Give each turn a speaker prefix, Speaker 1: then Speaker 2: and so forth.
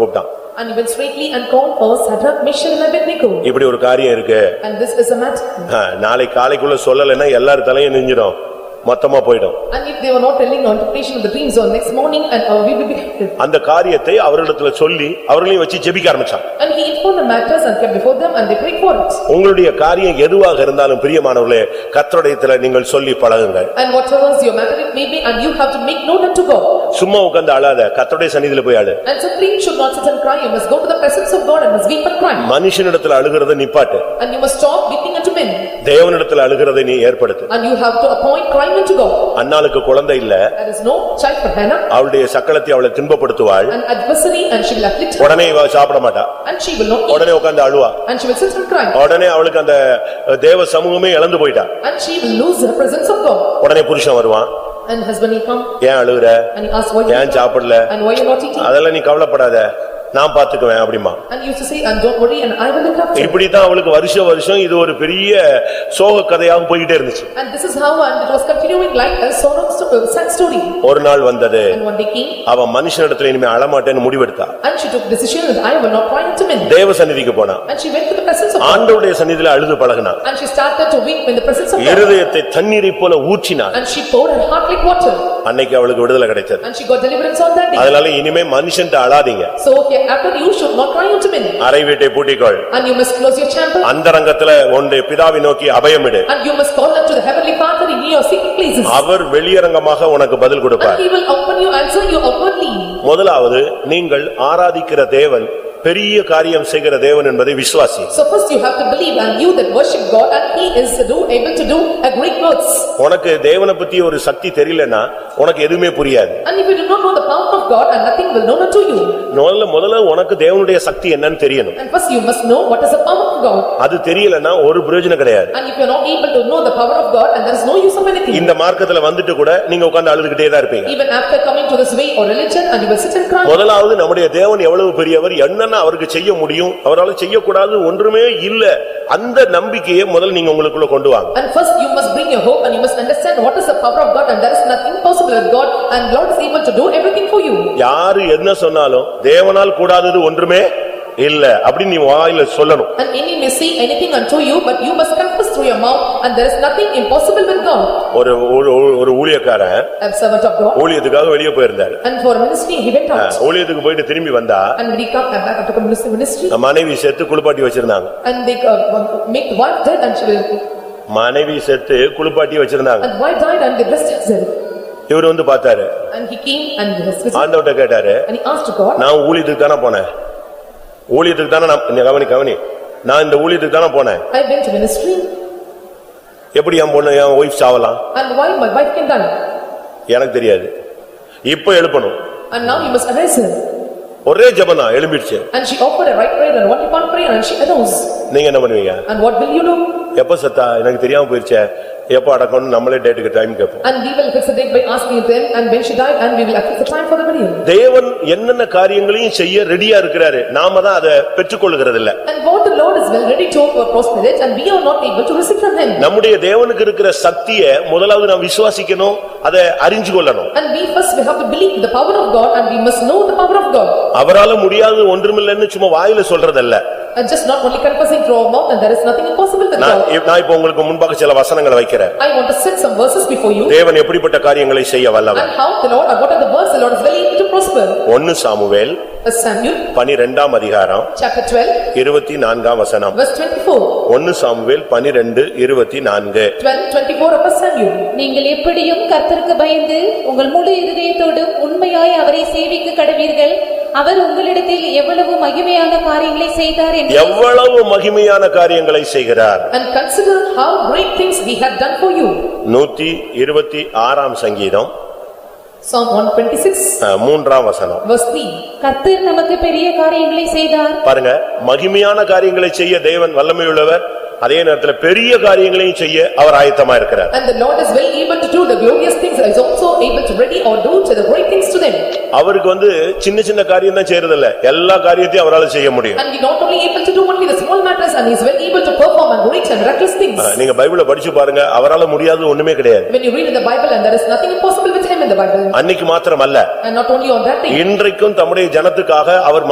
Speaker 1: கூப்பிட்டான்
Speaker 2: And he went straightly and called for Shadrach, Meshach and Abednego.
Speaker 1: இப்படி ஒரு காரியம் இருக்கு
Speaker 2: And this is a matter.
Speaker 1: ஆ, நாளை காலைக்குள்ள சொல்லலைன்னா எல்லாரும் தலையும் நெஞ்சிடும் மொத்தமா போயிடும்
Speaker 2: And if they were not telling the interpretation of the dreams on next morning and uh, we will be helped.
Speaker 1: அந்த காரியத்தை அவர்களிடத்துல சொல்லி அவர்களையும் வச்சு ஜெபிக்க ஆரம்பிச்சான்
Speaker 2: And he informed the matters and kept before them and they prayed for it.
Speaker 1: உங்களுடைய காரியம் எதுவாக இருந்தாலும் பிரியமானவர்களே கர்த்தருடையத்துல நீங்கள் சொல்லி பழகுங்க
Speaker 2: And whatever is your matter it may be and you have to make known unto God.
Speaker 1: சும்மா உட்கார்ந்து அழாத கர்த்தருடைய சந்நிதியில போய் அழு
Speaker 2: And suffering should not sit and cry, you must go to the presence of God and must weep and cry.
Speaker 1: மனுஷனிடத்துல அழுகிறத நிப்பாட்டு
Speaker 2: And you must stop weeping unto men.
Speaker 1: தேவனிடத்துல அழுகிறதை நீ ஏற்படுத்து
Speaker 2: And you have to appoint crying unto God.
Speaker 1: அன்னாளுக்கு குழந்தை இல்ல
Speaker 2: There is no child for Hannah,
Speaker 1: அவளுடைய சக்களத்தை அவளை தின்பப்படுத்துவாள்
Speaker 2: an adversary and she will afflict her
Speaker 1: உடனே இவ சாப்பிட மாட்டா
Speaker 2: and she will not eat.
Speaker 1: உடனே உட்கார்ந்து அழுவா
Speaker 2: And she will sit and cry
Speaker 1: உடனே அவளுக்கு அந்த தேவ சமூகமே இழந்து போயிட்டா
Speaker 2: and she will lose her presence of God.
Speaker 1: உடனே புருஷன் வருவான்
Speaker 2: And husband he come
Speaker 1: ஏன் அழுகுற
Speaker 2: and he asks why you
Speaker 1: ஏன் சாப்பிடல
Speaker 2: and why you not eating?
Speaker 1: அதெல்லாம் நீ கவலைப்படாத நான் பாத்துக்குவேன் அப்படிமா
Speaker 2: And he used to say, and don't worry, and I will look after. you."
Speaker 1: இப்படித்தான் அவளுக்கு வருஷ வருஷம் இது ஒரு பெரிய சோக கதையாக போயிட்டே இருந்துச்சு
Speaker 2: And this is how and it was continuing like a sorrow, sto- uh, sad story.
Speaker 1: ஒரு நாள் வந்தது
Speaker 2: And one day came
Speaker 1: அவன் மனுஷனிடத்துல இனிமே அழமாட்டேன்னு முடிவெடுத்தா
Speaker 2: and she took decision that I will not cry to men.
Speaker 1: தேவ சந்நிதிக்கு போனான்
Speaker 2: And she went to the presence of God
Speaker 1: ஆண்டவருடைய சந்நிதியில அழுது பழகினான்
Speaker 2: and she started to weep in the presence of God.
Speaker 1: இருதயத்தை தண்ணீரைப் போல ஊற்றினான்
Speaker 2: And she poured her heart like water
Speaker 1: அன்னைக்கு அவளுக்கு விடுதலை கிடைச்சது
Speaker 2: and she got deliverance on that day.
Speaker 1: அதனால இனிமே மனுஷன்ட்ட அழாதீங்க
Speaker 2: So hereafter you should not cry unto men
Speaker 1: அறை வீட்டை பூட்டிக்கொள்
Speaker 2: and you must close your chamber
Speaker 1: அந்தரங்கத்துல உன்னுடைய பிதாவை நோக்கி அபயமிடு
Speaker 2: and you must call unto the heavenly father in your secret places.
Speaker 1: அவர் வெளியரங்கமாக உனக்கு பதில்
Speaker 2: And
Speaker 1: கொடுப்பார்
Speaker 2: he will open you, answer you openly.
Speaker 1: முதலாவது நீங்கள் ஆராதிக்கிற தேவன் பெரிய காரியம் செய்கிற தேவன் என்பதை விசுவாசி
Speaker 2: So first you have to believe and you that worship God and he is do able to do a great works.
Speaker 1: உனக்கு தேவனை பத்தி ஒரு சக்தி தெரியலன்னா உனக்கு எதுவுமே புரியாது
Speaker 2: And if you do not know the power of God and nothing will known unto you.
Speaker 1: முதல்ல முதல்ல உனக்கு தேவனுடைய சக்தி என்னன்னு தெரியணும்
Speaker 2: And first you must know what is the power of God.
Speaker 1: அது தெரியலன்னா ஒரு பிரயோஜனம் கிடையாது
Speaker 2: And if you are not able to know the power of God and there is no use of anything.
Speaker 1: இந்த மார்க்கத்துல வந்துட்டு கூட நீங்க உட்கார்ந்து அழுதுகிட்டே தான் இருப்பீங்க
Speaker 2: Even after coming to this way or religion and you will sit and cry.
Speaker 1: முதலாவது நம்முடைய தேவன் எவ்வளவு பெரியவர் என்னென்ன அவருக்கு செய்ய முடியும் அவரால் செய்யக்கூடாது ஒன்றுமே இல்ல அந்த நம்பிக்கையை முதல்ல நீங்க உங்களுக்குள்ள கொண்டு வாங்க
Speaker 2: And first you must bring your hope and you must understand what is the power of God and there is nothing possible with God and Lord is able to do everything for you.
Speaker 1: யாரு என்ன சொன்னாலும் தேவனால் கூடாதது ஒன்றுமே இல்ல அப்படின்னு நீ வாயில சொல்லணும்
Speaker 2: And any may say anything unto you but you must confess through your mouth and there is nothing impossible with God.
Speaker 1: ஒரு ஊ- ஊ- ஒரு ஊழியக்காரன்
Speaker 2: A servant of God.
Speaker 1: ஊழியத்துக்காக வெளியே போயிருந்தாரு
Speaker 2: And for ministry, he went out.
Speaker 1: ஊழியத்துக்கு போயிட்டு திரும்பி வந்தா
Speaker 2: And when he come back after ministry, ministry,
Speaker 1: மனைவி செத்து குளிப்பாட்டி வச்சிருந்தாங்க
Speaker 2: and they uh, make the wife dead and she will,
Speaker 1: மனைவி செத்து குளிப்பாட்டி வச்சிருந்தாங்க
Speaker 2: and wife died and they blessed herself.
Speaker 1: இவர் வந்து பார்த்தாரு
Speaker 2: And he came and he was visited,
Speaker 1: ஆண்டவட்ட கேட்டாரு
Speaker 2: and he asked God,
Speaker 1: நான் ஊழியத்துக்கு தானே போனேன் ஊழியத்துக்கு தானே நான் நீ கவனி கவனி நான் இந்த ஊழியத்துக்கு தானே போனேன்
Speaker 2: I went to ministry
Speaker 1: எப்படி என் பொண்ணு என் ஒய்ஃப் சாவலாம்
Speaker 2: and why my wife came down?
Speaker 1: எனக்கு தெரியாது இப்போ எழுப்பணும்
Speaker 2: And now you must arise her.
Speaker 1: ஒரே ஜெபம் தான் எழும்பிடுச்சு
Speaker 2: And she offered a right prayer and what upon prayer and she arose.
Speaker 1: நீங்க என்ன பண்ணுவீங்க
Speaker 2: And what will you do?
Speaker 1: எப்ப செத்தா எனக்கு தெரியாம போயிருச்சே எப்ப அடக்கணும் நம்மளே டேட்டுக்கு டைம் கேட்போம்
Speaker 2: And we will fix the date by asking them and when she died and we will fix the time for the burial.
Speaker 1: தேவன் என்னென்ன காரியங்களையும் செய்ய ரெடியா இருக்கிறாரு நாம தான் அதை பெற்றுக்கொள்கிறது இல்ல
Speaker 2: And what the Lord is well ready to prosper it and we are not able to receive from him.
Speaker 1: நம்முடைய தேவனுக்கு இருக்கிற சக்திய முதலாவது நாம் விசுவாசிக்கணும் அதை அறிஞ்சு கொள்ளணும்
Speaker 2: And we first we have to believe the power of God and we must know the power of God.
Speaker 1: அவரால முடியாதது ஒன்றுமில்லைன்னு சும்மா வாயில சொல்றதல்ல
Speaker 2: And just not only confessing through our mouth and there is nothing impossible with
Speaker 1: நான்
Speaker 2: God.
Speaker 1: இப்- நான் இப்போ உங்களுக்கு முன்பாக சில வசனங்களை வைக்கிறேன்
Speaker 2: I want to set some verses before you
Speaker 1: தேவன் எப்படிப்பட்ட காரியங்களை செய்ய வல்லவர்
Speaker 2: and how the Lord, and what are the words the Lord is willing to prosper.
Speaker 1: ஒன்னு சாமுவேல்
Speaker 2: As Samuel,
Speaker 1: பனிரெண்டாம் அதிகாரம்
Speaker 2: chapter twelve,
Speaker 1: இருபத்தி நான்காம் வசனம்
Speaker 2: verse twenty-four,
Speaker 1: ஒன்னு சாமுவேல் பனிரெண்டு இருபத்தி நான்கு
Speaker 2: twelve, twenty-four of First Samuel.
Speaker 3: நீங்கள் எப்படியும் கர்த்தருக்கு பயந்து உங்கள் முழு இருதயத்தோடும் உண்மையாய் அவரை சேவிக்க கடவீர்கள் அவர் உங்களிடத்தில் எவ்வளவு மகிமையான காரியங்களை செய்தார் என்று
Speaker 1: எவ்வளவு மகிமையான காரியங்களை செய்கிறார்
Speaker 2: And consider how great things he had done for you.
Speaker 1: நூத்தி இருபத்தி ஆறாம் சங்கீதம்
Speaker 2: Psalm one twenty-six,
Speaker 1: அஹ், மூன்றாம் வசனம்
Speaker 2: verse three.
Speaker 3: கர்த்தர் நமக்கு பெரிய காரியங்களை செய்தார்
Speaker 1: பாருங்க மகிமையான காரியங்களை செய்ய தேவன் வல்லமையுள்ளவர் அதே நேரத்துல பெரிய காரியங்களையும் செய்ய அவர் ஆயத்தமா இருக்கிறார்
Speaker 2: And the Lord is well able to do the glorious things, is also able to ready or do to the great things to them.
Speaker 1: அவருக்கு வந்து சின்ன சின்ன காரியம் தான் செய்யறதில்ல எல்லா காரியத்தையும் அவரால செய்ய முடியும்
Speaker 2: And he not only able to do only the small matters and he is well able to perform and great and miraculous things.
Speaker 1: அஹ், நீங்க பைபிளை படிச்சு பாருங்க அவரால முடியாதது ஒண்ணுமே கிடையாது
Speaker 2: When you read in the Bible and there is nothing impossible with him in the Bible.
Speaker 1: அன்னைக்கு மாத்திரம் அல்ல
Speaker 2: And not only on that thing.
Speaker 1: இன்றைக்கும் தம்முடைய ஜனத்துக்காக அவர்